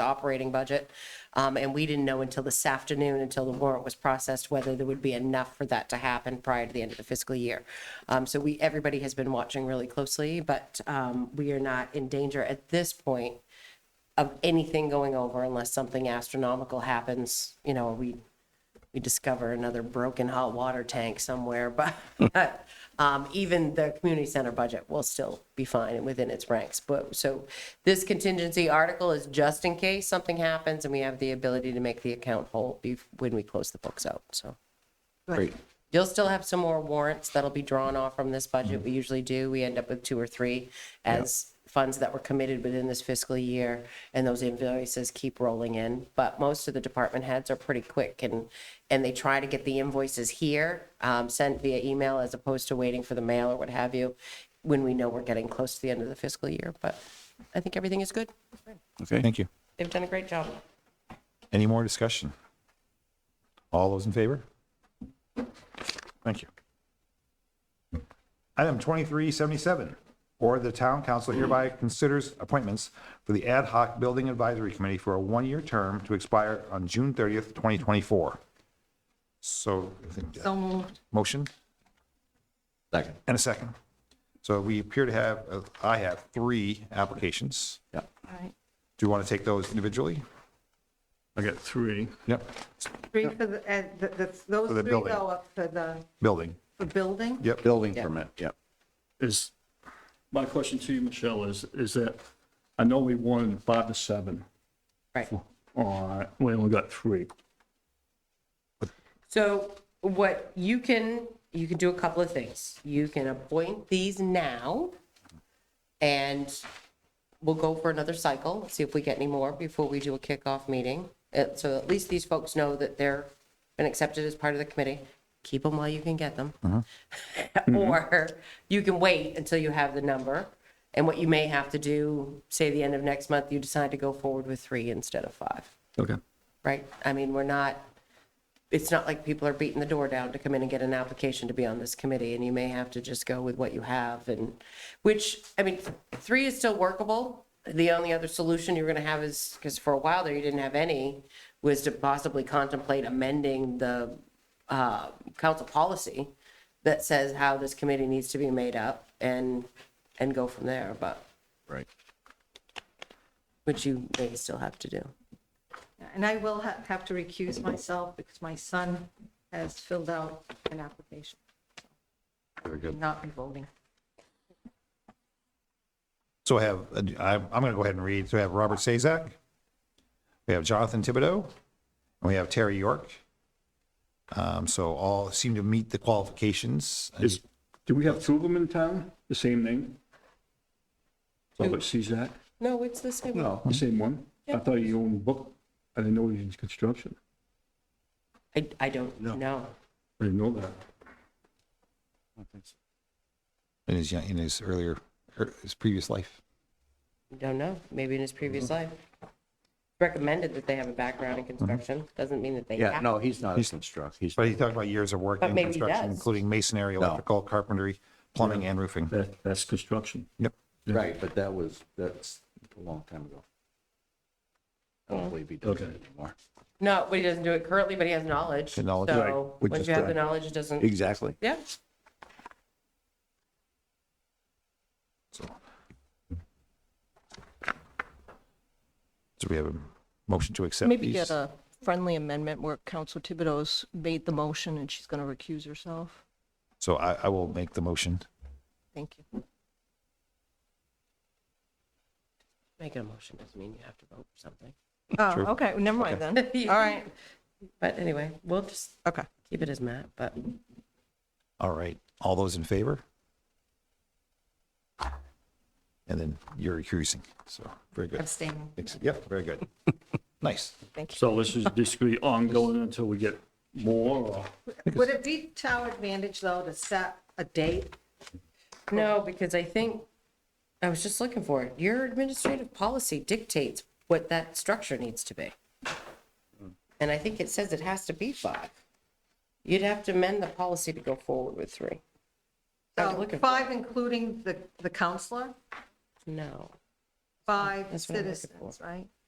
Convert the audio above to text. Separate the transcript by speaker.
Speaker 1: the operating budget. Um, and we didn't know until this afternoon, until the warrant was processed, whether there would be enough for that to happen prior to the end of the fiscal year. Um, so we, everybody has been watching really closely, but, um, we are not in danger at this point of anything going over unless something astronomical happens, you know, we, we discover another broken hot water tank somewhere, but um, even the community center budget will still be fine and within its ranks. But so this contingency article is just in case something happens and we have the ability to make the account whole be- when we close the books out. So
Speaker 2: Great.
Speaker 1: you'll still have some more warrants that'll be drawn off from this budget. We usually do. We end up with two or three as funds that were committed within this fiscal year, and those invoices keep rolling in. But most of the department heads are pretty quick, and, and they try to get the invoices here, um, sent via email as opposed to waiting for the mail or what have you, when we know we're getting close to the end of the fiscal year. But I think everything is good.
Speaker 2: Okay. Thank you.
Speaker 1: They've done a great job.
Speaker 2: Any more discussion? All those in favor? Thank you. Item 2377, or the town council hereby considers appointments for the ad hoc building advisory committee for a one-year term to expire on June 30th, 2024. So, I think- uh, motion
Speaker 3: Second.
Speaker 2: and a second. So we appear to have, uh, I have three applications.
Speaker 3: Yeah.
Speaker 2: Do you want to take those individually?
Speaker 4: I got three.
Speaker 2: Yep,
Speaker 5: Three for the, and th- that's, those
Speaker 2: the
Speaker 5: three
Speaker 2: building.
Speaker 5: go up for the,
Speaker 2: building.
Speaker 5: for building?
Speaker 2: Yep.
Speaker 3: Building permit, yep.
Speaker 4: Is, my question to you, Michelle, is, is that, I know we wanted five to seven,
Speaker 1: Right.
Speaker 4: uh, we only got three.
Speaker 1: So what you can, you can do a couple of things. You can appoint these now and we'll go for another cycle, see if we get any more before we do a kickoff meeting. Uh, So at least these folks know that they're been accepted as part of the committee. Keep them while you can get them. Or you can wait until you have the number. And what you may have to do, say the end of next month, you decide to go forward with three instead of five,
Speaker 4: Okay.
Speaker 1: right? I mean, we're not it's not like people are beating the door down to come in and get an application to be on this committee, and you may have to just go with what you have and, which, I mean, three is still workable. The only other solution you're gonna have is, because for a while there, you didn't have any, was to possibly contemplate amending the, uh, council policy that says how this committee needs to be made up and, and go from there, but,
Speaker 3: Right.
Speaker 1: which you may still have to do.
Speaker 5: And I will ha- have to recuse myself because my son has filled out an application,
Speaker 2: Very good.
Speaker 5: not in voting.
Speaker 2: So I have, I- I'm going to go ahead and read. So we have Robert Sazak, we have Jonathan Thibodeau, and we have Terry York. Um, So all seem to meet the qualifications.
Speaker 4: Is, do we have two of them in town, the same name? Robert Cezak,
Speaker 1: No, it's the same.
Speaker 3: No,
Speaker 4: the same one? I thought you owned book, I didn't know he was in construction,
Speaker 1: I, I don't know.
Speaker 4: I didn't know that.
Speaker 2: In his, young- in his earlier, er, his previous life.
Speaker 1: don't know, maybe in his previous life. Recommended that they have a background in construction, doesn't mean that they
Speaker 3: yeah,
Speaker 1: have.
Speaker 3: no, he's not a construct, he's,
Speaker 2: But he talked about years of work
Speaker 1: But
Speaker 2: in
Speaker 1: maybe he
Speaker 2: construction,
Speaker 1: does.
Speaker 2: including masonry, electrical, carpentry, plumbing, and roofing.
Speaker 4: That, that's construction.
Speaker 2: Yep.
Speaker 3: right, but that was, that's a long time ago. I don't believe he does it
Speaker 4: Okay.
Speaker 3: anymore.
Speaker 1: No, but he doesn't do it currently, but he has knowledge.
Speaker 2: The knowledge,
Speaker 1: So
Speaker 3: We
Speaker 1: once
Speaker 3: just
Speaker 1: you have
Speaker 3: don't-
Speaker 1: the knowledge, it doesn't,
Speaker 3: Exactly.
Speaker 1: yeah.
Speaker 2: So So we have a motion to accept
Speaker 6: Maybe
Speaker 2: these.
Speaker 6: get a friendly amendment where Council Thibodeau's made the motion and she's going to recuse herself.
Speaker 2: So I, I will make the motion.
Speaker 6: Thank you.
Speaker 1: Making a motion doesn't mean you have to vote for something.
Speaker 6: Oh, okay, never mind then. All right,
Speaker 1: But anyway, we'll just
Speaker 6: okay.
Speaker 1: keep it as Matt, but
Speaker 2: All right, all those in favor? And then you're recusing, so, very good.
Speaker 5: Abstaining.
Speaker 2: Yep, very good. Nice.
Speaker 4: So this is basically ongoing until we get more, or?
Speaker 5: Would it be to our advantage, though, to set a date?
Speaker 1: No, because I think, I was just looking for it. Your administrative policy dictates what that structure needs to be. And I think it says it has to be five. You'd have to amend the policy to go forward with three. I was
Speaker 5: So
Speaker 1: looking for it.
Speaker 5: Five, including the, the counselor,
Speaker 1: No.
Speaker 5: five
Speaker 1: That's what I'm looking
Speaker 5: citizens, right?